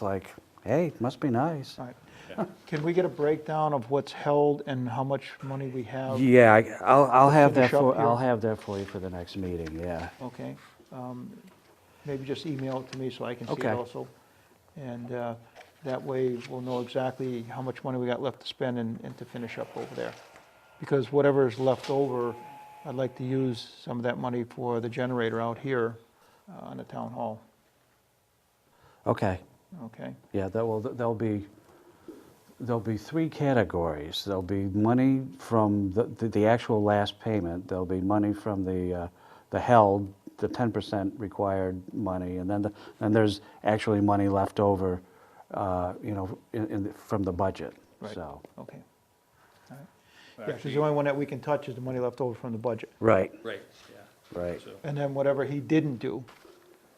It's like, hey, it must be nice. Right. Can we get a breakdown of what's held and how much money we have? Yeah, I- I'll, I'll have that finish up for, I'll here. have that for you for the next meeting, yeah. Okay. Um, Maybe just email it to me so I can see it Okay. also. And uh, that way, we'll know exactly how much money we got left to spend and and to finish up over there. Because whatever is left over, I'd like to use some of that money for the generator out here uh, on the town hall, Okay, okay? yeah, that will, there'll be, there'll be three categories. There'll be money from the, the- the actual last payment, there'll be money from the, uh, the held, the ten percent required money, and then, the- then there's actually money left over, uh, you know, in, in, from the budget, Right. so. Okay. All right. Yeah, 'cause the only one that we can touch is the money left over from the budget. Right, Right, yeah. right, So, And then whatever he didn't do,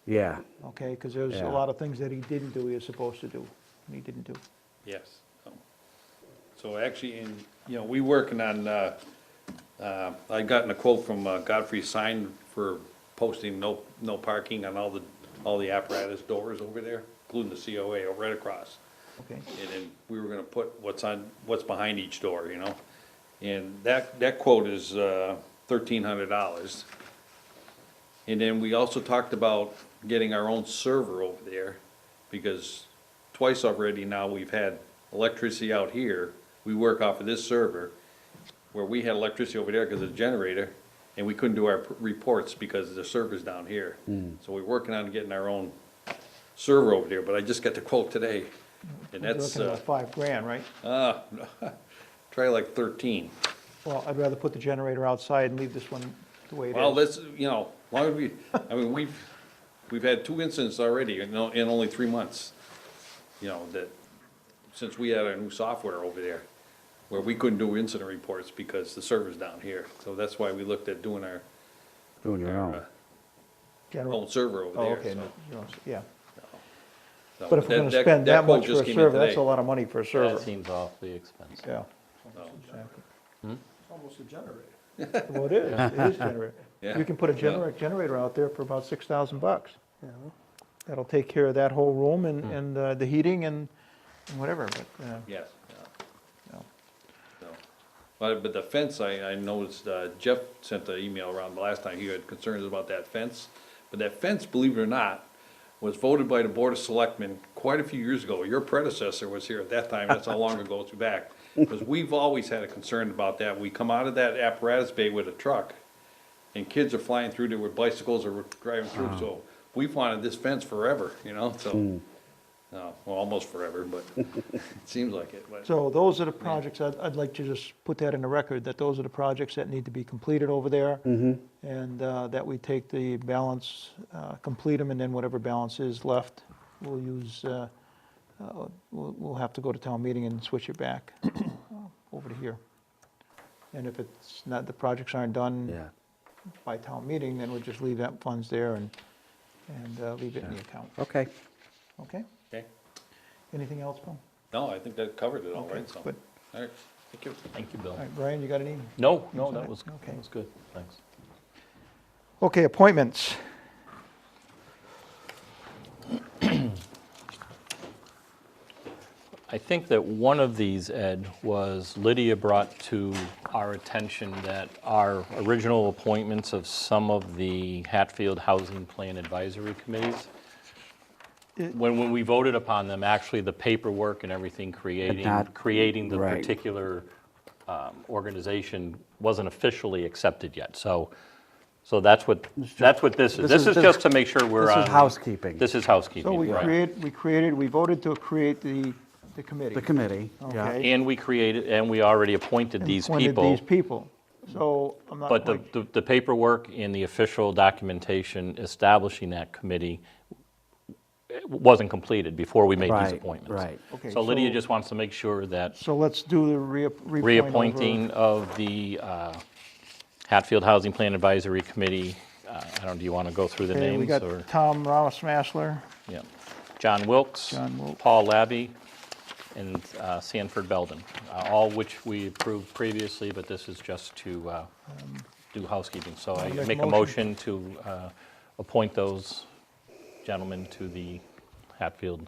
yeah, okay? Because there's a Yeah. lot of things that he didn't do, he was supposed to do, and he didn't do. yes. so- So actually, in, you know, we working on, uh, uh, I gotten a quote from uh, Godfrey Sign for posting no, no parking on all the, all the apparatus doors over there, including the COA right across. Okay, And then we were gonna put what's on, what's behind each door, you know? And that, that quote is, uh, thirteen hundred dollars. And then we also talked about getting our own server over there, because twice already now we've had electricity out here, we work off of this server, where we had electricity over there because of the generator, and we couldn't do our p- reports because the server's down here. So we're working on getting our own server over there, but I just got the quote today, and You're that's, looking uh, at five grand, right? uh, try like thirteen. Well, I'd rather put the generator outside and leave this one the way it is. Well, that's, you know, long as we, I mean, we've, we've had two incidents already, you know, in only three months. You know, that, since we had our new software over there, where we couldn't do incident reports because the server's down here. So that's why we looked at doing our, doing your our own. uh, Gener- own server over Oh, there. okay, so- no, you don't- yeah. so But if we're that- gonna that- spend that quote much just for a came in server, that's today. a lot of money for a That server, seems awfully expensive. yeah. exactly. Hmm? Well, it is, it is generator. Yeah. You can put a generator, generator out there for about six thousand bucks. That'll take care of that whole room and, Hmm. and uh, the heating and and whatever, but, uh, Yes, yeah. no. So, But, but the fence, I, I noticed uh, Jeff sent the email around the last time, he had concerns about that fence. But that fence, believe it or not, was voted by the Board of Selectmen quite a few years ago. Your predecessor was here at that time, that's how long ago it's back. Because we've always had a concern about that. We come out of that apparatus bay with a truck, and kids are flying through there with bicycles or driving through, so we've wanted this fence forever, you know, so. no, Well, almost forever, but it seems like it, but. So those are the projects, I'd, I'd like to just put that in the record, that those are the projects that need to be completed over there. And uh, that we take the balance, uh, complete them, and then whatever balance is left, we'll use, uh, uh, we'll, we'll have to go to town meeting and switch it back uh, over to here. And if it's not, the projects aren't done Yeah, by town meeting, then we'll just leave that funds there and, and uh, leave it in the account, okay. okay? Okay. Anything else, Bill? No, I think that covered it all, right, so. Good. All right, thank you. Thank you, Bill. All right, Brian, you got any? No, no, Sorry. that was, Okay. that was good, thanks. Okay, appointments. I think that one of these, Ed, was Lydia brought to our attention that our original appointments of some of the Hatfield Housing Plan Advisory Committees, It- when, when we voted upon them, actually the paperwork and everything creating, not- creating the right. particular um, organization wasn't officially accepted yet. So, so that's what, that's what this this is. This is- is this- just to make sure we're this on. is housekeeping. This is So housekeeping, we right. create, we created, we voted to create the, the committee. The committee, yeah. Okay. And we created, and we already appointed and these appointed people. These people. So I'm not But the, quite- the- the paperwork and the official documentation establishing that committee wasn't completed before we made these Right, appointments. right. Okay, So Lydia so- just wants to make sure that So let's do the reap- reappoint. reappointing over- of the uh, Hatfield Housing Plan Advisory Committee, uh, I don't, do you want to go through the Okay, we names got or? Tom Ramos-Masler, yeah. John Wilkes. John Wilkes. Paul Labby, and uh, Sanford Belden, uh, all which we approved previously, but this is just to uh, do housekeeping. So I I'll make a make a motion. motion to uh, appoint those gentlemen to the Hatfield